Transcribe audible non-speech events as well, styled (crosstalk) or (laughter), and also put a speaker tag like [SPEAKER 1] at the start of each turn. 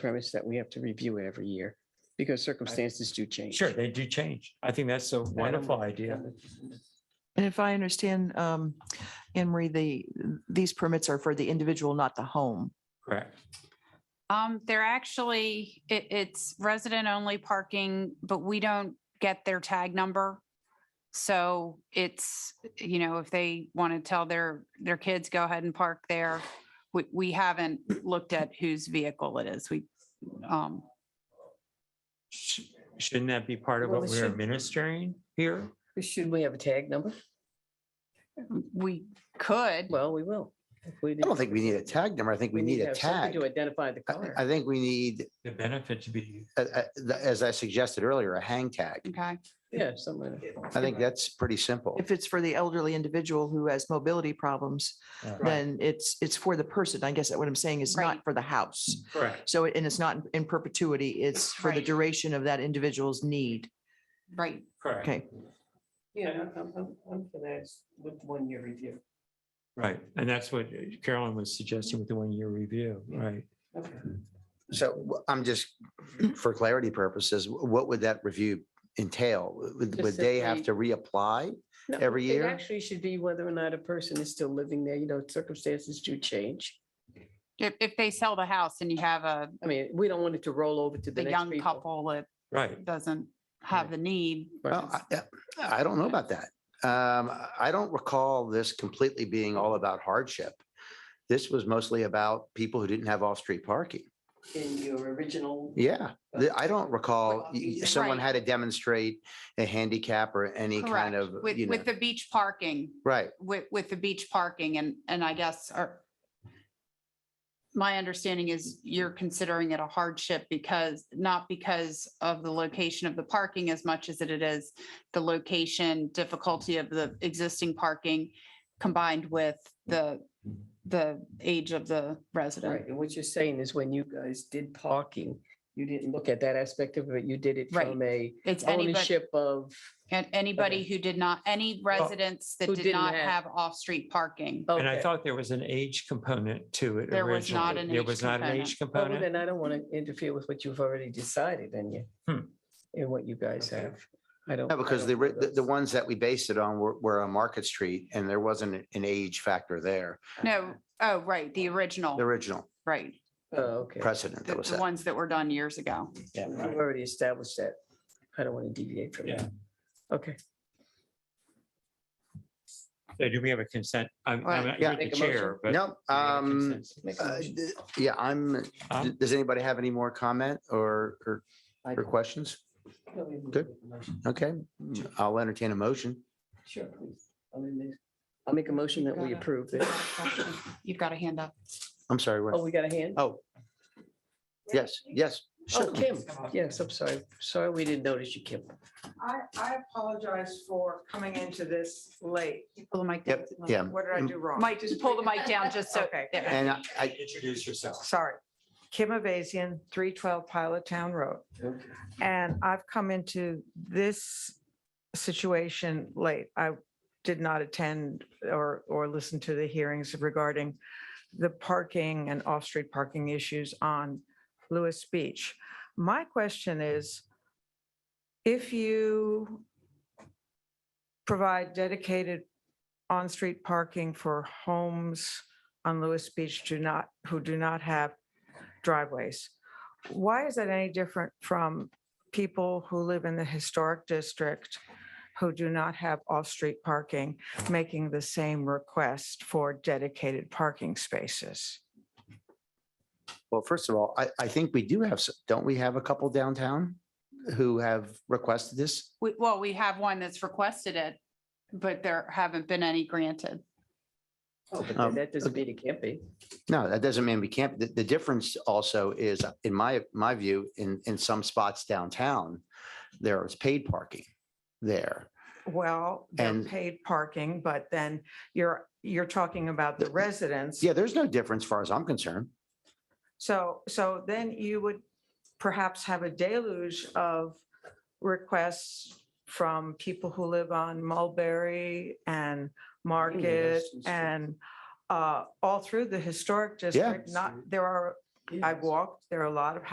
[SPEAKER 1] premise that we have to review it every year because circumstances do change.
[SPEAKER 2] Sure, they do change. I think that's a wonderful idea.
[SPEAKER 3] And if I understand, um, Anne Marie, the, these permits are for the individual, not the home.
[SPEAKER 2] Correct.
[SPEAKER 4] Um, they're actually, it, it's resident only parking, but we don't get their tag number. So it's, you know, if they want to tell their, their kids, go ahead and park there. We, we haven't looked at whose vehicle it is. We, um,
[SPEAKER 2] Sh- Shouldn't that be part of
[SPEAKER 5] Well,
[SPEAKER 2] what
[SPEAKER 5] it
[SPEAKER 2] we're
[SPEAKER 5] should-
[SPEAKER 2] administering here?
[SPEAKER 5] Shouldn't we have a tag number?
[SPEAKER 4] we could.
[SPEAKER 5] Well, we will.
[SPEAKER 6] I don't think we need a tag number. I think we need a tag.
[SPEAKER 5] To identify the
[SPEAKER 6] I-
[SPEAKER 5] car.
[SPEAKER 6] I think we need,
[SPEAKER 2] The benefit to be,
[SPEAKER 6] uh, uh, the- as I suggested earlier, a hang tag.
[SPEAKER 4] Okay.
[SPEAKER 5] Yeah, somewhere.
[SPEAKER 6] I think that's pretty simple.
[SPEAKER 3] If it's for the elderly individual who has mobility problems,
[SPEAKER 2] Yeah.
[SPEAKER 3] then it's, it's for the person. I guess that what I'm saying is
[SPEAKER 4] Right.
[SPEAKER 3] not for the house.
[SPEAKER 2] correct.
[SPEAKER 3] So, and it's not in perpetuity, it's for the
[SPEAKER 4] Right.
[SPEAKER 3] duration of that individual's need.
[SPEAKER 4] Right.
[SPEAKER 2] Correct.
[SPEAKER 3] Okay.
[SPEAKER 5] Yeah, I'm, I'm, I'm for that with one year review.
[SPEAKER 2] Right. And that's what uh, Carolyn was suggesting with the one-year review, right?
[SPEAKER 5] Okay.
[SPEAKER 6] So wh- I'm just, (clears throat) for clarity purposes, wh- what would that review entail? Would,
[SPEAKER 5] Just
[SPEAKER 6] would they have to
[SPEAKER 5] simply-
[SPEAKER 6] reapply?
[SPEAKER 5] No,
[SPEAKER 6] Every year?
[SPEAKER 5] It actually should be whether or not a person is still living there, you know, circumstances do change.
[SPEAKER 4] If, if they sell the house and you have a,
[SPEAKER 5] I mean, we don't want it to roll over to the
[SPEAKER 4] the
[SPEAKER 5] next
[SPEAKER 4] young
[SPEAKER 5] people.
[SPEAKER 4] couple that
[SPEAKER 2] Right.
[SPEAKER 4] doesn't have the need.
[SPEAKER 6] Well, I, I- I don't know about that. Um, I- I don't recall this completely being all about hardship. This was mostly about people who didn't have off-street parking.
[SPEAKER 5] In your original.
[SPEAKER 6] Yeah, the- I don't recall,
[SPEAKER 5] Well,
[SPEAKER 6] y- y- someone
[SPEAKER 4] Right.
[SPEAKER 6] had to demonstrate a handicap or any
[SPEAKER 4] Correct.
[SPEAKER 6] kind of,
[SPEAKER 4] With,
[SPEAKER 6] you know,
[SPEAKER 4] with the beach parking,
[SPEAKER 6] right.
[SPEAKER 4] with, with the beach parking and, and I guess our my understanding is you're considering it a hardship because, not because of the location of the parking as much as it is the location, difficulty of the existing parking combined with the, the age of the
[SPEAKER 5] Right,
[SPEAKER 4] resident.
[SPEAKER 5] and what you're saying is when you guys did parking, you didn't look at that aspect of it, you did it
[SPEAKER 4] Right.
[SPEAKER 5] from a
[SPEAKER 4] It's anybody,
[SPEAKER 5] ownership of,
[SPEAKER 4] and anybody who did not, any residents that
[SPEAKER 5] Oh, who
[SPEAKER 4] did
[SPEAKER 5] didn't
[SPEAKER 4] not
[SPEAKER 5] have- Oh.
[SPEAKER 4] have off-street parking.
[SPEAKER 2] And I
[SPEAKER 5] Okay.
[SPEAKER 2] thought there was an age component to it
[SPEAKER 4] There was not
[SPEAKER 2] originally.
[SPEAKER 4] an
[SPEAKER 2] There
[SPEAKER 4] age
[SPEAKER 2] was not an
[SPEAKER 4] component.
[SPEAKER 2] age
[SPEAKER 5] Well, well,
[SPEAKER 2] component.
[SPEAKER 5] then I don't want to interfere with what you've already decided and you,
[SPEAKER 2] Hmm.
[SPEAKER 5] and what you guys
[SPEAKER 2] Okay.
[SPEAKER 5] have. I don't.
[SPEAKER 6] No,
[SPEAKER 5] I
[SPEAKER 6] because
[SPEAKER 5] don't
[SPEAKER 6] the,
[SPEAKER 5] know
[SPEAKER 6] ri- the, the
[SPEAKER 5] those.
[SPEAKER 6] ones that we based it on were, were on Market Street and there wasn't an age factor there,
[SPEAKER 4] No, oh, right, the
[SPEAKER 6] the
[SPEAKER 4] original,
[SPEAKER 6] original
[SPEAKER 4] right,
[SPEAKER 5] Oh, okay.
[SPEAKER 6] precedent
[SPEAKER 4] the
[SPEAKER 6] that was
[SPEAKER 4] the
[SPEAKER 6] set.
[SPEAKER 4] ones that were done years ago.
[SPEAKER 2] Yeah,
[SPEAKER 5] We've
[SPEAKER 2] right.
[SPEAKER 5] already established that. I don't want to deviate from
[SPEAKER 2] Yeah.
[SPEAKER 5] that. Okay.
[SPEAKER 2] So do we have a consent? I'm, I'm
[SPEAKER 4] Right.
[SPEAKER 2] you're
[SPEAKER 6] Yeah.
[SPEAKER 2] the
[SPEAKER 5] Make a
[SPEAKER 2] chair, but. do
[SPEAKER 6] No,
[SPEAKER 2] we have a
[SPEAKER 6] um,
[SPEAKER 2] consensus?
[SPEAKER 5] Make a
[SPEAKER 6] uh,
[SPEAKER 5] motion.
[SPEAKER 6] d- yeah, I'm,
[SPEAKER 2] Um,
[SPEAKER 6] d- does anybody have any more comment or, or,
[SPEAKER 5] I
[SPEAKER 6] or
[SPEAKER 5] don't-
[SPEAKER 6] questions?
[SPEAKER 5] no, we can
[SPEAKER 6] Good.
[SPEAKER 5] make a motion.
[SPEAKER 6] Okay, I'll entertain a motion.
[SPEAKER 5] Sure, please. I'll make this- I'll make a motion that we
[SPEAKER 4] Got it.
[SPEAKER 5] approve this.
[SPEAKER 4] You've got a hand up.
[SPEAKER 6] I'm sorry. what-
[SPEAKER 5] Oh, we got a hand?
[SPEAKER 6] Oh. Yes, yes.
[SPEAKER 5] Oh,
[SPEAKER 6] certainly.
[SPEAKER 5] Kim, yes, I'm sorry. Sorry, we didn't notice you, Kim.
[SPEAKER 7] I, I apologize for coming into this late.
[SPEAKER 4] Pull the mic down.
[SPEAKER 6] Yep, yeah.
[SPEAKER 7] What
[SPEAKER 4] Mm.
[SPEAKER 7] did I do wrong?
[SPEAKER 4] Mike, just pull the mic down just so.
[SPEAKER 7] Okay.
[SPEAKER 4] there.
[SPEAKER 6] And I- I,
[SPEAKER 2] Introduce yourself.
[SPEAKER 7] Sorry. Kim Avazian, three twelve Pilot Town Road. And I've come into this situation late. I did not attend or, or listen to the hearings regarding the parking and off-street parking issues on Lewis Beach. My question is, if you provide dedicated on-street parking for homes on Lewis Beach do not, who do not have driveways, why is that any different from people who live in the historic district who do not have off-street parking, making the same request for dedicated parking spaces?
[SPEAKER 6] Well, first of all, I, I think we do have, s- don't we have a couple downtown who have requested this?
[SPEAKER 4] We- Well, we have one that's requested it, but there haven't been any granted.
[SPEAKER 5] Oh, but
[SPEAKER 6] Um,
[SPEAKER 5] then that doesn't mean it can't be.
[SPEAKER 6] No, that doesn't mean we can't. The, the difference also is, in my, my view, in, in some spots downtown, there is paid parking there.
[SPEAKER 7] Well, they're
[SPEAKER 6] And-
[SPEAKER 7] paid parking, but then you're, you're talking about the residents.
[SPEAKER 6] Yeah, there's no difference as far as I'm concerned.
[SPEAKER 7] So, so then you would perhaps have a deluge of requests from people who live on Mulberry and Market
[SPEAKER 5] Street.
[SPEAKER 7] and uh, all through the historic district. Not, there are, I walked, there are a lot of